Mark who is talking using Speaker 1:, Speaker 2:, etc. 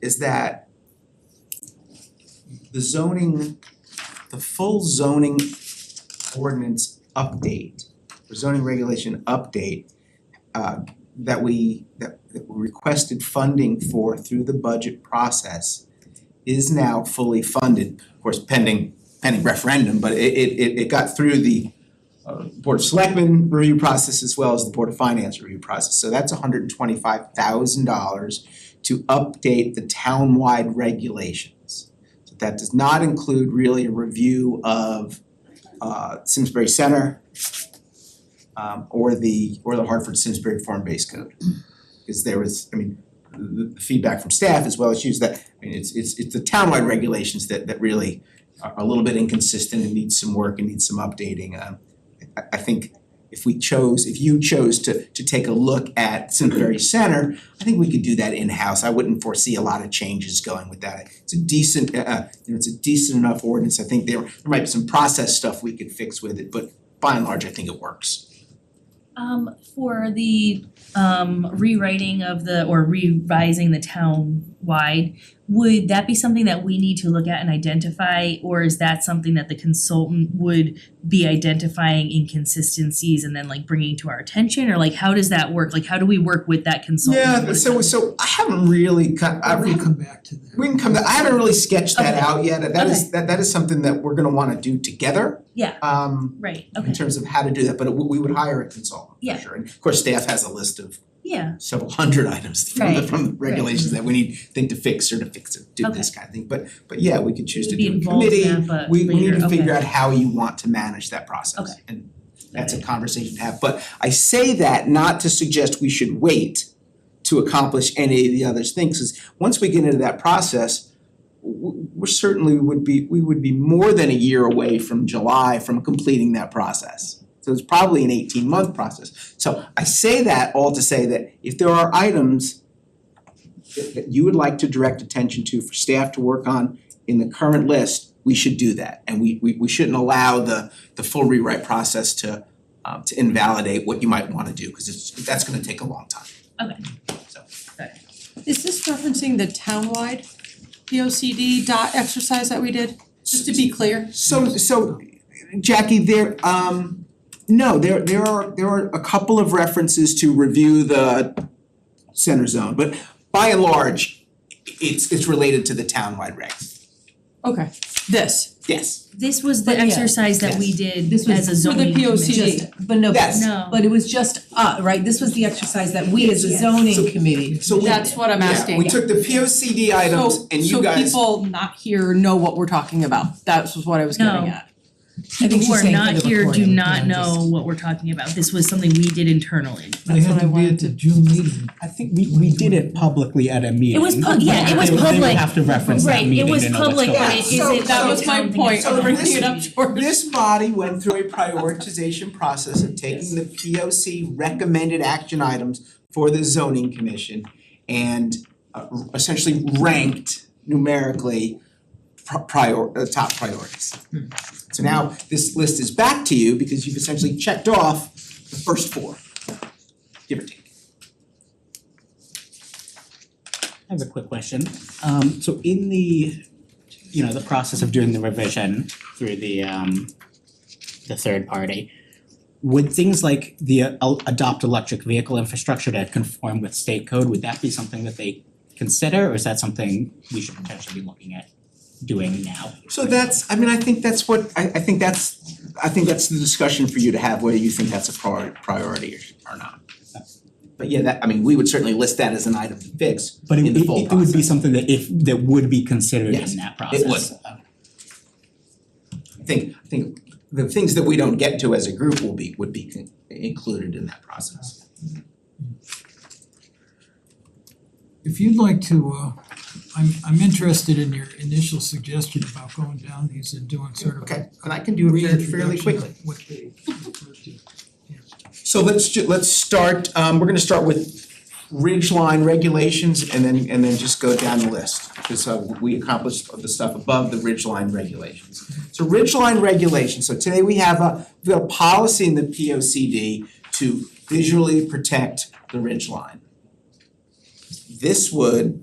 Speaker 1: is that the zoning, the full zoning ordinance update, the zoning regulation update uh that we that that we requested funding for through the budget process is now fully funded, of course pending pending referendum, but it it it it got through the uh, Board of Selectmen review process as well as the Board of Finance review process. So that's hundred and twenty-five thousand dollars to update the town-wide regulations. So that does not include really a review of uh Simsbury Center um or the or the Hartford Simsbury Form-Based Code. Because there was, I mean, the the feedback from staff as well as you is that, I mean, it's it's it's the town-wide regulations that that really are are a little bit inconsistent and need some work and need some updating. Um I I think if we chose, if you chose to to take a look at Simsbury Center, I think we could do that in-house. I wouldn't foresee a lot of changes going with that. It's a decent, uh uh, you know, it's a decent enough ordinance. I think there there might be some process stuff we could fix with it, but by and large, I think it works.
Speaker 2: Um for the um rewriting of the or revising the town wide, would that be something that we need to look at and identify, or is that something that the consultant would be identifying inconsistencies and then like bringing to our attention, or like how does that work? Like how do we work with that consultant?
Speaker 1: Yeah, so so I haven't really, co- I
Speaker 3: We
Speaker 1: re-
Speaker 3: can come back to that.
Speaker 1: we can come, to- I haven't really sketched that
Speaker 2: Okay.
Speaker 1: out yet. That is, that that is something that we're gonna wanna do together.
Speaker 2: Yeah.
Speaker 1: Um
Speaker 2: Right,
Speaker 1: in
Speaker 2: okay,
Speaker 1: terms of how to do that, but it- we would hire a consultant for
Speaker 2: Yeah.
Speaker 1: sure. And of course, staff has a list of
Speaker 2: yeah,
Speaker 1: several hundred items from the
Speaker 2: Right,
Speaker 1: from the regulations that we need, think to fix or to fix it, do this kind of thing. But but yeah, we could choose to
Speaker 2: Be
Speaker 1: do a
Speaker 2: involved in
Speaker 1: committee.
Speaker 2: that, but
Speaker 1: We we need
Speaker 2: later,
Speaker 1: to figure
Speaker 2: okay.
Speaker 1: out how you want to manage that process.
Speaker 2: Okay.
Speaker 1: And that's a conversation to have, but I say that not to suggest we should wait to accomplish any of the other things, is once we get into that process, w- we're certainly would be, we would be more than a year away from July from completing that process. So it's probably an eighteen month process. So I say that all to say that if there are items that that you would like to direct attention to for staff to work on in the current list, we should do that. And we we we shouldn't allow the the full rewrite process to um to invalidate what you might wanna do, cause it's that's gonna take a long time.
Speaker 3: Is this referencing the townwide POCD dot exercise that we did? Just to be clear,
Speaker 1: So so Jackie, there um no, there there are there are a couple of references to review the center zone, but by and large, it's it's related to the townwide regs.
Speaker 3: okay, this,
Speaker 1: Yes,
Speaker 2: this was the
Speaker 4: But yeah,
Speaker 2: exercise that we
Speaker 1: yes.
Speaker 2: did
Speaker 4: This was
Speaker 2: as a
Speaker 3: for the
Speaker 2: zoning committee.
Speaker 3: POCD.
Speaker 4: Just, but no,
Speaker 1: Yes.
Speaker 2: No.
Speaker 4: but it was just, uh, right, this was the exercise that we as a
Speaker 2: Yes.
Speaker 1: So-
Speaker 4: zoning committee.
Speaker 1: so we
Speaker 3: That's what I'm
Speaker 1: yeah,
Speaker 3: asking.
Speaker 1: we took the P O C D items
Speaker 3: So-
Speaker 1: and you guys
Speaker 3: So people not here know what we're talking about, that's what I was getting
Speaker 2: No.
Speaker 3: at.
Speaker 4: I think
Speaker 2: Who
Speaker 4: she's
Speaker 2: are
Speaker 4: saying for
Speaker 2: not
Speaker 4: the
Speaker 2: here do
Speaker 4: recording,
Speaker 2: not
Speaker 4: yeah, just-
Speaker 2: know what we're talking about. This was something we did internally.
Speaker 5: They
Speaker 3: That's
Speaker 5: had
Speaker 3: what I
Speaker 5: to be
Speaker 3: wanted
Speaker 5: at
Speaker 3: to-
Speaker 5: the June meeting.
Speaker 6: I think we we did it publicly at a meeting.
Speaker 2: was pub- yeah, it was
Speaker 6: They would- They
Speaker 2: public.
Speaker 6: would have to reference
Speaker 2: Right,
Speaker 6: that
Speaker 2: it
Speaker 6: meeting
Speaker 2: was
Speaker 6: to know what's
Speaker 2: public,
Speaker 6: going on.
Speaker 2: but it
Speaker 1: Yeah, so-
Speaker 2: isn't-
Speaker 3: That was
Speaker 2: it's
Speaker 3: my
Speaker 2: something
Speaker 3: point,
Speaker 2: that's-
Speaker 3: I'm bringing it up, George.
Speaker 1: This body went through a prioritization process of taking the P O C recommended action items for the zoning commission and uh, essentially ranked numerically pri- prior, uh, top priorities. So now this list is back to you because you've essentially checked off the first four, give or take.
Speaker 6: I have a quick question. Um so in the, you know, the process of doing the revision through the um the third party, would things like the uh, el- adopt electric vehicle infrastructure to conform with state code, would that be something that they consider or is that something we should potentially be looking at doing now?
Speaker 1: So that's, I mean, I think that's what, I I think that's, I think that's the discussion for you to have, whether you think that's a prior priority or or not. But yeah, that, I mean, we would certainly list that as an item to fix.
Speaker 6: But it
Speaker 1: In
Speaker 6: it
Speaker 1: the full
Speaker 6: it would be
Speaker 1: process.
Speaker 6: something that if that would be considered
Speaker 1: Yes,
Speaker 6: in that process.
Speaker 1: it would. I think, I think the things that we don't get to as a group will be, would be con- included in that process.
Speaker 5: If you'd like to, uh, I'm I'm interested in your initial suggestion about going down these and doing sort of
Speaker 1: Okay,
Speaker 5: a
Speaker 1: and I can do it fairly- fairly
Speaker 5: reintroduction
Speaker 1: quickly.
Speaker 5: of what they refer to.
Speaker 1: So let's ju- let's start, um, we're gonna start with ridge line regulations and then and then just go down the list. Cause uh, we accomplished the stuff above the ridge line regulations. So ridge line regulations, so today we have a, we have a policy in the P O C D to visually protect the ridge line. This would